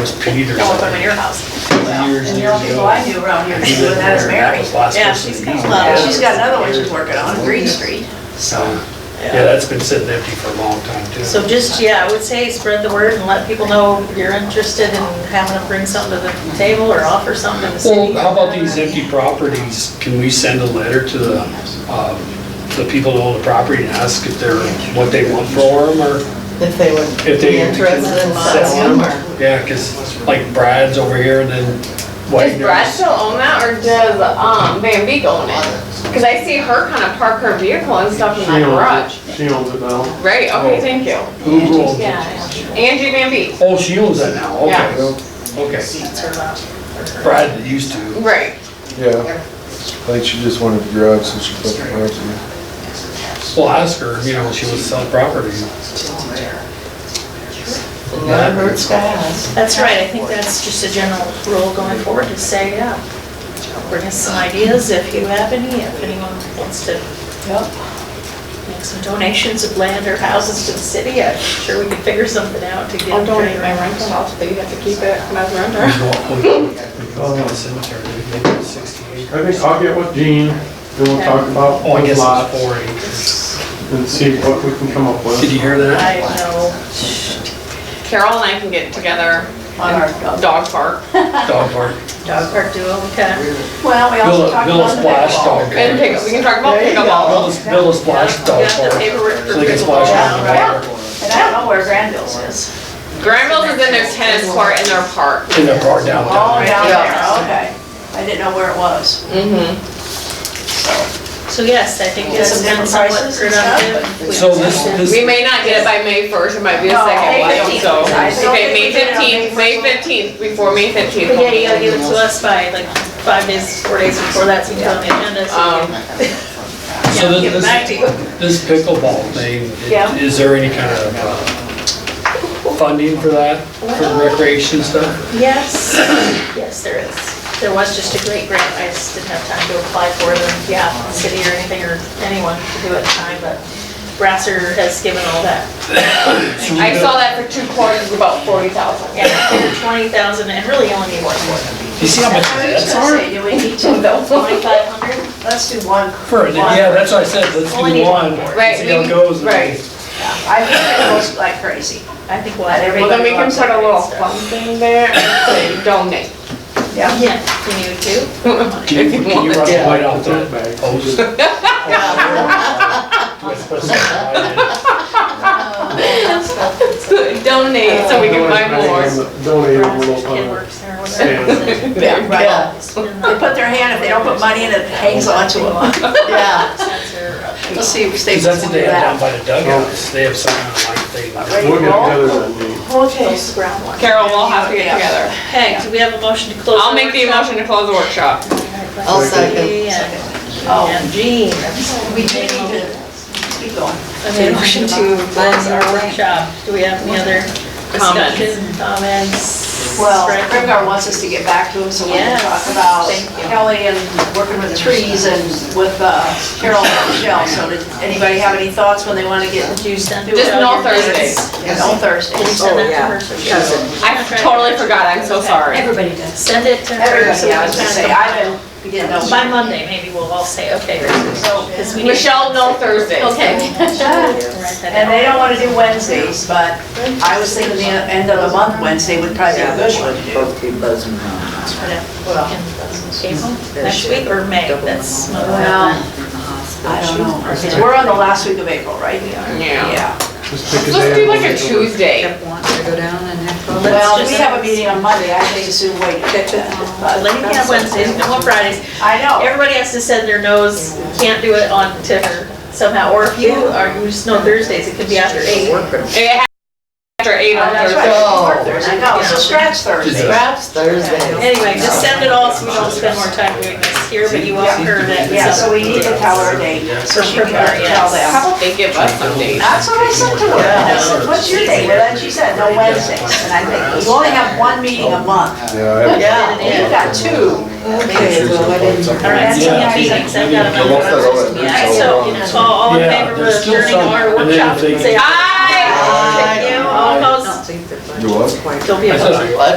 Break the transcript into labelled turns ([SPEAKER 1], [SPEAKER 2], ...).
[SPEAKER 1] was Peter's.
[SPEAKER 2] Don't open them in your house.
[SPEAKER 1] Years,
[SPEAKER 3] And the
[SPEAKER 1] years
[SPEAKER 3] only people I
[SPEAKER 1] ago.
[SPEAKER 3] knew around here
[SPEAKER 1] He lived
[SPEAKER 3] doing that is
[SPEAKER 1] there, and
[SPEAKER 3] Mary.
[SPEAKER 1] was the last
[SPEAKER 2] Yeah,
[SPEAKER 1] person
[SPEAKER 2] she's
[SPEAKER 1] to
[SPEAKER 2] got
[SPEAKER 1] use
[SPEAKER 2] one.
[SPEAKER 1] it.
[SPEAKER 3] Well, she's got another one she's working on, Green Street.
[SPEAKER 1] So, yeah, that's been sitting empty for a long time too.
[SPEAKER 2] So just, yeah, I would say spread the word and let people know you're interested in having them bring something to the table or offer something to the
[SPEAKER 1] Well,
[SPEAKER 2] city.
[SPEAKER 1] how about these empty properties? Can we send a letter to the, um, the people who own the property and ask if they're, what they want for them or?
[SPEAKER 4] If they would
[SPEAKER 1] If they
[SPEAKER 4] be interested in selling them or.
[SPEAKER 1] Yeah, because like Brad's over here and then
[SPEAKER 5] Does Brad
[SPEAKER 1] Wagner's.
[SPEAKER 5] still own that or does, um, Van Beek own it? Cause I see her kinda park her vehicle and stuff in
[SPEAKER 6] She
[SPEAKER 5] that
[SPEAKER 6] owns
[SPEAKER 5] garage.
[SPEAKER 6] it, she owns it now.
[SPEAKER 5] Right, okay,
[SPEAKER 1] Oh.
[SPEAKER 5] thank you.
[SPEAKER 1] Who owns
[SPEAKER 5] Yeah,
[SPEAKER 1] it?
[SPEAKER 5] Angie Van Beek,
[SPEAKER 1] Oh, she owns that now,
[SPEAKER 5] Yeah.
[SPEAKER 1] okay, okay. Brad used to.
[SPEAKER 5] right.
[SPEAKER 7] Yeah. I think she just wanted the garage, so she put the garage in.
[SPEAKER 1] Well, ask her, you know, she was selling property.
[SPEAKER 4] It Never hurts to ask.
[SPEAKER 2] That's right, I think that's just a general rule going forward to say, yeah, bring us some ideas if you have any, if anyone wants to make some donations of land or houses to the city, I'm sure we can figure something out to get.
[SPEAKER 5] I'll donate my rental house, but you have to keep it when I was a
[SPEAKER 1] We
[SPEAKER 5] renter.
[SPEAKER 1] go up- we- we go up to the cemetery, we go to 68.
[SPEAKER 6] I think I'll get with Gene, and we'll talk about
[SPEAKER 1] Oh, I guess
[SPEAKER 6] those
[SPEAKER 1] it's
[SPEAKER 6] lots
[SPEAKER 1] four acres.
[SPEAKER 6] and see what we can come up with.
[SPEAKER 1] Did you hear that?
[SPEAKER 2] I know.
[SPEAKER 5] Carol and I can get together
[SPEAKER 3] On our
[SPEAKER 5] on dog park
[SPEAKER 1] Dog park.
[SPEAKER 2] Dog park duo, okay.
[SPEAKER 3] Well, we
[SPEAKER 1] Build
[SPEAKER 3] also
[SPEAKER 1] a,
[SPEAKER 3] talked
[SPEAKER 1] build a
[SPEAKER 3] about the
[SPEAKER 1] splash
[SPEAKER 3] pickleball.
[SPEAKER 1] dog.
[SPEAKER 5] and pick, we can talk about
[SPEAKER 3] There you
[SPEAKER 5] pickleball.
[SPEAKER 1] Build a, build a splash dog
[SPEAKER 2] Got the
[SPEAKER 1] park.
[SPEAKER 2] paperwork for
[SPEAKER 1] So they can splash
[SPEAKER 2] pickleball.
[SPEAKER 1] around
[SPEAKER 3] And I don't know where Granville's is.
[SPEAKER 5] Granville's is in their tennis court in their park.
[SPEAKER 1] in their park down
[SPEAKER 3] Oh,
[SPEAKER 1] there.
[SPEAKER 3] down there,
[SPEAKER 2] Yeah.
[SPEAKER 3] okay. I didn't know where it was.
[SPEAKER 5] Mm-hmm.
[SPEAKER 2] So yes, I think
[SPEAKER 3] Yeah,
[SPEAKER 2] this
[SPEAKER 3] some different
[SPEAKER 2] depends on what
[SPEAKER 3] prices
[SPEAKER 2] we're
[SPEAKER 3] and
[SPEAKER 2] gonna
[SPEAKER 3] stuff,
[SPEAKER 2] do.
[SPEAKER 1] So this, this.
[SPEAKER 5] We may not get it by May first, it might be a
[SPEAKER 3] No,
[SPEAKER 5] second
[SPEAKER 3] May
[SPEAKER 5] one,
[SPEAKER 3] 15th.
[SPEAKER 5] so.
[SPEAKER 3] I don't
[SPEAKER 5] Okay, May
[SPEAKER 3] think we can.
[SPEAKER 5] fifteenth, May fifteenth, before May fifteenth.
[SPEAKER 2] But yeah, you gotta give it to us by like five days, four days before that, so you can put it on the agenda. so we
[SPEAKER 5] Um,
[SPEAKER 2] can-
[SPEAKER 1] So
[SPEAKER 2] Give it back
[SPEAKER 1] this,
[SPEAKER 2] to you.
[SPEAKER 1] this pickleball thing,
[SPEAKER 2] Yeah.
[SPEAKER 1] is there any kind of uh, funding for that, for the recreation stuff?
[SPEAKER 2] Yes, yes, there is. There was just a great grant, I just didn't have time to apply for it, and yeah, the city or anything, or anyone could do it at the time, but Brasser has given all that.
[SPEAKER 5] I saw that for two quarters, about forty thousand.
[SPEAKER 2] Yeah, twenty thousand, and really only need one for them.
[SPEAKER 1] You see how much
[SPEAKER 3] I was
[SPEAKER 1] that's
[SPEAKER 3] gonna
[SPEAKER 1] hard?
[SPEAKER 3] say, do we need to,
[SPEAKER 2] Twenty-five hundred?
[SPEAKER 3] let's do one.
[SPEAKER 1] For, yeah, that's what I said, let's do
[SPEAKER 2] Only need
[SPEAKER 1] one,
[SPEAKER 2] one more.
[SPEAKER 5] Right,
[SPEAKER 1] see how
[SPEAKER 5] we-
[SPEAKER 1] it goes.
[SPEAKER 5] right.
[SPEAKER 3] I think it goes like crazy.
[SPEAKER 2] I think we'll add
[SPEAKER 5] Well,
[SPEAKER 2] everybody.
[SPEAKER 5] then we can put a little fun thing there and say donate.
[SPEAKER 3] Yeah.
[SPEAKER 2] Yeah, can you too?
[SPEAKER 1] Can you, can you run the light off
[SPEAKER 6] Put
[SPEAKER 1] that
[SPEAKER 6] that back.
[SPEAKER 1] post?
[SPEAKER 5] Donate, so we
[SPEAKER 6] Oh,
[SPEAKER 5] can buy more.
[SPEAKER 6] Donate a
[SPEAKER 2] Brasser's
[SPEAKER 6] little,
[SPEAKER 2] kid
[SPEAKER 6] uh,
[SPEAKER 2] works there, whatever.
[SPEAKER 5] Yeah.
[SPEAKER 4] Yeah,
[SPEAKER 3] They put their hand, if they don't put money in it, it hangs onto them.
[SPEAKER 4] yeah.
[SPEAKER 2] uh,
[SPEAKER 3] We'll see if they
[SPEAKER 1] Cause that's what
[SPEAKER 3] do
[SPEAKER 1] they have down
[SPEAKER 3] that.
[SPEAKER 1] by the dugouts, they have something like they.
[SPEAKER 6] we'll get together that day.
[SPEAKER 3] Okay.
[SPEAKER 2] Those brown ones.
[SPEAKER 5] Carol, we'll have to get together.
[SPEAKER 2] Okay, do we have a motion to close?
[SPEAKER 5] I'll make the
[SPEAKER 2] workshop?
[SPEAKER 5] motion to close the workshop.
[SPEAKER 4] I'll second.
[SPEAKER 3] Oh,
[SPEAKER 2] And and Jean.
[SPEAKER 3] We do need to keep going.
[SPEAKER 2] Okay, motion to close our workshop. Do we have any other
[SPEAKER 5] Comments.
[SPEAKER 2] discussion, comments?
[SPEAKER 3] Well,
[SPEAKER 2] Right.
[SPEAKER 3] Grimgar wants us to get back to him, so we can
[SPEAKER 2] Yes,
[SPEAKER 3] talk about
[SPEAKER 2] thank you.
[SPEAKER 3] Kelly and working with trees and with uh, Carol and Michelle. So did anybody have any thoughts when they want to get,
[SPEAKER 2] Do you send?
[SPEAKER 5] Just
[SPEAKER 2] out your
[SPEAKER 5] no Thursdays.
[SPEAKER 2] dates?
[SPEAKER 3] you know, Thursday?
[SPEAKER 2] Did you send that to her? so she knows?
[SPEAKER 5] I totally forgot, I'm so sorry.
[SPEAKER 2] Send it to her.
[SPEAKER 3] Everybody, I was gonna say, I don't, we didn't know.
[SPEAKER 2] By Monday, maybe we'll all say, okay.
[SPEAKER 3] So-
[SPEAKER 2] Because we need-
[SPEAKER 5] Michelle, no Thursday.
[SPEAKER 2] Okay.
[SPEAKER 3] And they don't want to do Wednesdays, but I was thinking the end of the month, Wednesday would probably be a good one to do.
[SPEAKER 8] Both be buzzing around.
[SPEAKER 3] Well,
[SPEAKER 2] April, next week or May, that's.
[SPEAKER 3] Well, I don't know. We're on the last week of April, right?
[SPEAKER 5] Yeah.
[SPEAKER 3] Yeah.
[SPEAKER 6] Just pick a day.
[SPEAKER 5] Let's do
[SPEAKER 6] and
[SPEAKER 5] like a
[SPEAKER 6] we'll-
[SPEAKER 5] Tuesday.
[SPEAKER 8] Step one, to go down and have.
[SPEAKER 2] Let's
[SPEAKER 3] Well,
[SPEAKER 2] just-
[SPEAKER 3] we have a meeting on Monday, I think it's soon wait.
[SPEAKER 2] But Let me have Wednesdays, no more Fridays.
[SPEAKER 3] I know.
[SPEAKER 2] Everybody has to send their no's, can't do it on to her somehow, or if you are, you just know Thursdays, it could be after eight.
[SPEAKER 5] It has after eight on
[SPEAKER 3] That's
[SPEAKER 5] Thursday.
[SPEAKER 3] right, it's work Thursday, no, so Oh. scratch Thursday.
[SPEAKER 4] Perhaps Thursday.
[SPEAKER 2] Anyway, just send it all so we don't spend more time doing this here, but you want her that.
[SPEAKER 3] Yeah, so we need to tell her a date, so she can tell them.
[SPEAKER 5] How about they give us some dates?
[SPEAKER 3] That's what I said to her, I said, what's your date? Well, then she said, no Wednesdays, and I think, you only have one meeting a month.
[SPEAKER 7] Yeah, I have
[SPEAKER 4] Yeah.
[SPEAKER 3] You've got two.
[SPEAKER 4] Okay, well, I didn't.
[SPEAKER 2] All right, so
[SPEAKER 1] Yeah.
[SPEAKER 2] yeah, meetings, I've got
[SPEAKER 1] I
[SPEAKER 2] another
[SPEAKER 7] lost
[SPEAKER 2] one
[SPEAKER 7] that
[SPEAKER 2] I'm supposed to
[SPEAKER 7] one.
[SPEAKER 2] be at, so, you know, so all in
[SPEAKER 1] Yeah,
[SPEAKER 2] favor
[SPEAKER 1] there's
[SPEAKER 2] of
[SPEAKER 1] still
[SPEAKER 2] adjourning
[SPEAKER 1] some,
[SPEAKER 2] our
[SPEAKER 1] and then if
[SPEAKER 2] workshop,
[SPEAKER 1] they-
[SPEAKER 2] say aye.
[SPEAKER 5] Aye.
[SPEAKER 2] Thank you, all opposed?
[SPEAKER 7] You what?
[SPEAKER 2] Don't be
[SPEAKER 1] I said
[SPEAKER 2] opposed.
[SPEAKER 1] I-
[SPEAKER 4] What?